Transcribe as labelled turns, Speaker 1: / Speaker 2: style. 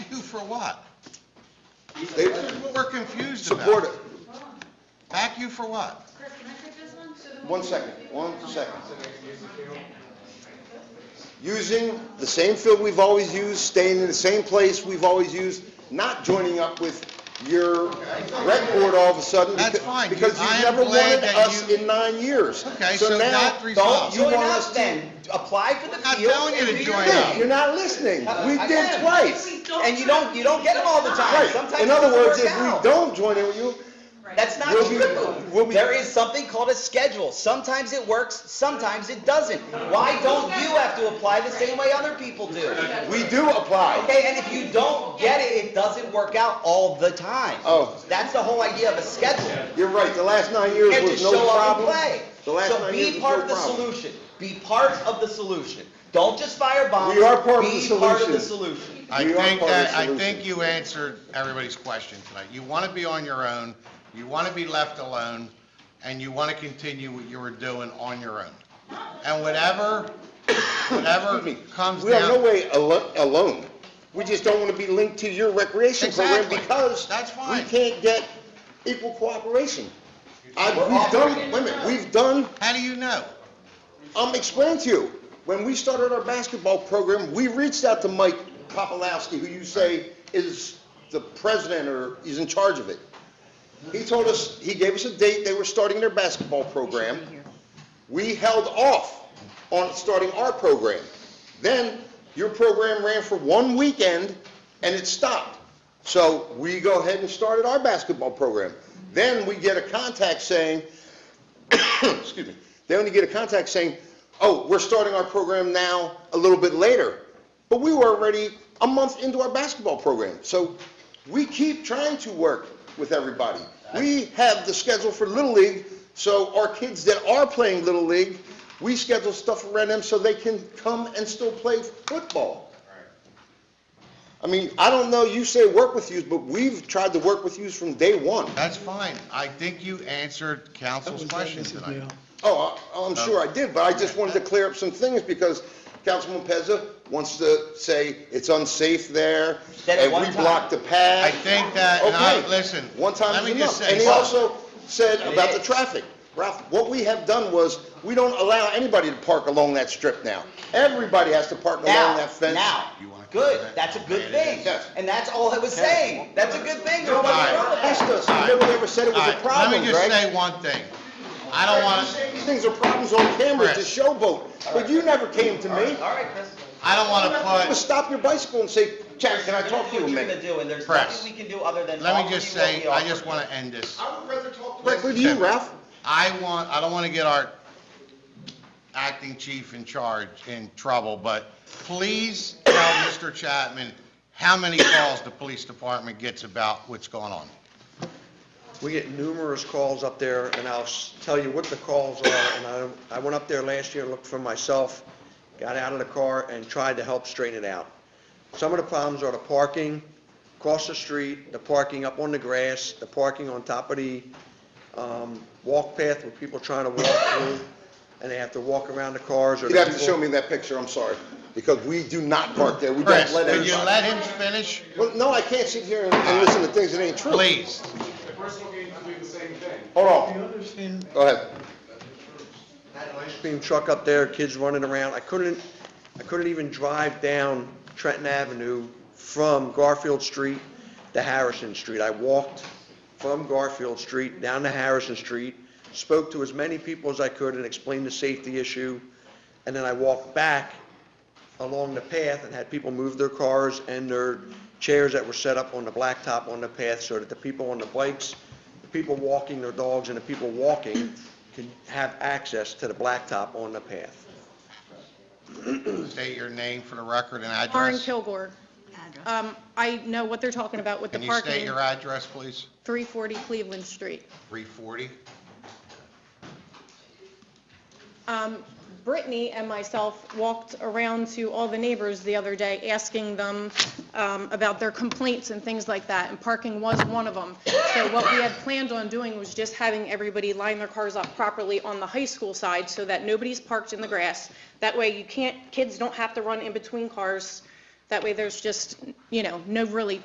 Speaker 1: or what?
Speaker 2: They
Speaker 1: That's what we're confused about.
Speaker 2: support it.
Speaker 1: Back you for what?
Speaker 3: Chris, can I take this one?
Speaker 2: One second, one second. Using the same field we've always used, staying in the same place we've always used, not joining up with your rec board all of a sudden.
Speaker 1: That's
Speaker 2: becau-
Speaker 1: fine. You-
Speaker 2: Because
Speaker 1: I
Speaker 2: you've
Speaker 1: am
Speaker 2: never
Speaker 1: glad
Speaker 2: wanted
Speaker 1: that
Speaker 2: us
Speaker 1: you-
Speaker 2: in nine years.
Speaker 1: Okay, so
Speaker 2: now,
Speaker 1: that
Speaker 2: don't-
Speaker 1: resolves.
Speaker 2: You
Speaker 4: Join
Speaker 2: want
Speaker 4: up
Speaker 2: us to.
Speaker 4: then, apply for the
Speaker 1: not
Speaker 4: field.
Speaker 1: telling you
Speaker 4: and
Speaker 1: to
Speaker 4: do your
Speaker 1: join
Speaker 4: thing.
Speaker 1: up.
Speaker 2: You're not listening. We
Speaker 4: I
Speaker 2: did
Speaker 4: am.
Speaker 2: twice.
Speaker 4: And you don't, you don't get them all the time,
Speaker 2: Right.
Speaker 4: sometimes
Speaker 2: In
Speaker 4: it
Speaker 2: other
Speaker 4: doesn't
Speaker 2: words,
Speaker 4: work
Speaker 2: if we
Speaker 4: out.
Speaker 2: don't join in with you,
Speaker 4: That's not
Speaker 2: We'll be- we'll
Speaker 4: true.
Speaker 2: be-
Speaker 4: There is something called a schedule. Sometimes it works, sometimes it doesn't. Why don't you have to apply the same way other people do?
Speaker 2: we do apply.
Speaker 4: Okay, and if you don't get it, it doesn't work out all the time.
Speaker 2: Oh.
Speaker 4: That's the whole idea of a schedule.
Speaker 2: You're right, the last nine
Speaker 4: You
Speaker 2: years
Speaker 4: can't
Speaker 2: was
Speaker 4: just
Speaker 2: no
Speaker 4: show up and
Speaker 2: problem.
Speaker 4: play.
Speaker 2: The last
Speaker 4: So
Speaker 2: nine years
Speaker 4: be
Speaker 2: was
Speaker 4: part
Speaker 2: no
Speaker 4: of the
Speaker 2: problem.
Speaker 4: solution. Be part of the solution. Don't just firebomb.
Speaker 2: We are part of the
Speaker 4: Be part of the
Speaker 2: solution.
Speaker 4: solution.
Speaker 1: I
Speaker 2: You are
Speaker 1: think
Speaker 2: part of the
Speaker 1: that, I
Speaker 2: solution.
Speaker 1: think you answered everybody's question tonight. You want to be on your own, you want to be left alone, and you want to continue what you were doing on your own. And whatever, whatever
Speaker 2: Excuse me.
Speaker 1: comes
Speaker 2: We are no
Speaker 1: down,
Speaker 2: way alo- alone. We just don't want to be linked to your recreation program
Speaker 1: Exactly.
Speaker 2: because
Speaker 1: That's
Speaker 2: we
Speaker 1: fine.
Speaker 2: can't get equal cooperation. I,
Speaker 4: We're
Speaker 2: we've done,
Speaker 4: offering-
Speaker 2: wait a minute, we've done,
Speaker 1: how do you know?
Speaker 2: I'm explaining Um, to you. When we started our basketball program, we reached out to Mike Kopolowski, who you say is the president or is in charge of it. He told us, he gave us a date, they were starting their basketball program. We held off on starting our program. Then your program ran for one weekend and it stopped. So we go ahead and started our basketball program. Then we get a contact saying, excuse me, they only get a contact saying, oh, we're starting our program now a little bit later. But we were already a month into our basketball program. So we keep trying to work with everybody. We have the schedule for Little League, so our kids that are playing Little League, we schedule stuff around them so they can come and still play football. I mean, I don't know, you say work with youth, but we've tried to work with youth from day one.
Speaker 1: That's fine. I think you answered council's question tonight.
Speaker 2: Oh, I-
Speaker 1: Uh,
Speaker 2: I'm sure I did, but I just wanted to clear up some things because Councilman Pezza wants to say it's unsafe there,
Speaker 4: Said it
Speaker 2: and
Speaker 4: one
Speaker 2: we
Speaker 4: time.
Speaker 2: blocked the path.
Speaker 1: I think that, and I-
Speaker 2: Okay.
Speaker 1: listen,
Speaker 2: One time
Speaker 1: let
Speaker 2: is
Speaker 1: me just
Speaker 2: enough.
Speaker 1: say
Speaker 2: And he
Speaker 1: something.
Speaker 2: also said about the
Speaker 4: is.
Speaker 2: traffic. Ralph, what we have done was, we don't allow anybody to park along that strip now. Everybody has to park along
Speaker 4: Now,
Speaker 2: that fence.
Speaker 4: now,
Speaker 1: You wanna cover
Speaker 4: good,
Speaker 1: that?
Speaker 4: that's a good
Speaker 1: Okay, it
Speaker 4: thing.
Speaker 1: is.
Speaker 2: Yes.
Speaker 4: And that's all I was saying. That's a good thing. Nobody
Speaker 1: Alright.
Speaker 4: wrong with
Speaker 2: Asked
Speaker 4: that.
Speaker 2: us, and nobody ever said it was
Speaker 1: All
Speaker 2: a
Speaker 1: right,
Speaker 2: problem,
Speaker 1: Let me just
Speaker 2: Greg.
Speaker 1: say one thing. I don't want to,
Speaker 2: These things are problems on camera, to
Speaker 1: Chris.
Speaker 2: showboat, but you never came to me.
Speaker 4: All right, Chris.
Speaker 1: I don't want to
Speaker 2: Just
Speaker 1: put,
Speaker 2: stop your bicycle and say, Chad, can I talk to you a
Speaker 4: What you're gonna
Speaker 2: minute?
Speaker 4: do, and there's
Speaker 1: Press.
Speaker 4: nothing we can do other than
Speaker 1: let
Speaker 4: offer
Speaker 1: me
Speaker 4: you
Speaker 1: just
Speaker 4: what we
Speaker 1: say, I
Speaker 4: offer.
Speaker 1: just want to end this.
Speaker 2: Directly to you, Ralph.
Speaker 1: I want, I don't want to get our acting chief in charge in trouble, but please tell Mr. Chapman how many calls the police department gets about what's going on.
Speaker 5: We get numerous calls up there, and I'll s- tell you what the calls are, and I, I went up there last year, looked for myself, got out of the car, and tried to help straighten it out. Some of the problems are the parking, across the street, the parking up on the grass, the parking on top of the, um, walk path where people trying to walk through, and they have to walk around the cars or the
Speaker 2: You'd have to
Speaker 5: people-
Speaker 2: show me that picture, I'm sorry, because we do not park there, we
Speaker 1: Chris,
Speaker 2: don't let
Speaker 1: would you
Speaker 2: everybody.
Speaker 1: let him finish?
Speaker 2: Well, no, I can't sit here and- and listen to things that ain't true.
Speaker 1: Please.
Speaker 6: personal games do the same thing.
Speaker 2: Hold on,
Speaker 7: understand
Speaker 2: go ahead.
Speaker 5: had an ice cream truck up there, kids running around. I couldn't, I couldn't even drive down Trenton Avenue from Garfield Street to Harrison Street. I walked from Garfield Street down to Harrison Street, spoke to as many people as I could and explained the safety issue, and then I walked back along the path and had people move their cars and their chairs that were set up on the blacktop on the path so that the people on the bikes, the people walking their dogs and the people walking can have access to the blacktop on the path.
Speaker 1: State your name for the record and address.
Speaker 8: Lauren Kilgore. Um, I know what they're talking about with the
Speaker 1: Can you state
Speaker 8: parking,
Speaker 1: your address, please?
Speaker 8: 340 Cleveland Street.
Speaker 1: 340?
Speaker 8: Um, Brittany and myself walked around to all the neighbors the other day, asking them um, about their complaints and things like that, and parking was one of them. So what we had planned on doing was just having everybody line their cars up properly on the high school side so that nobody's parked in the grass. That way you can't, kids don't have to run in between cars. That way there's just, you know, no really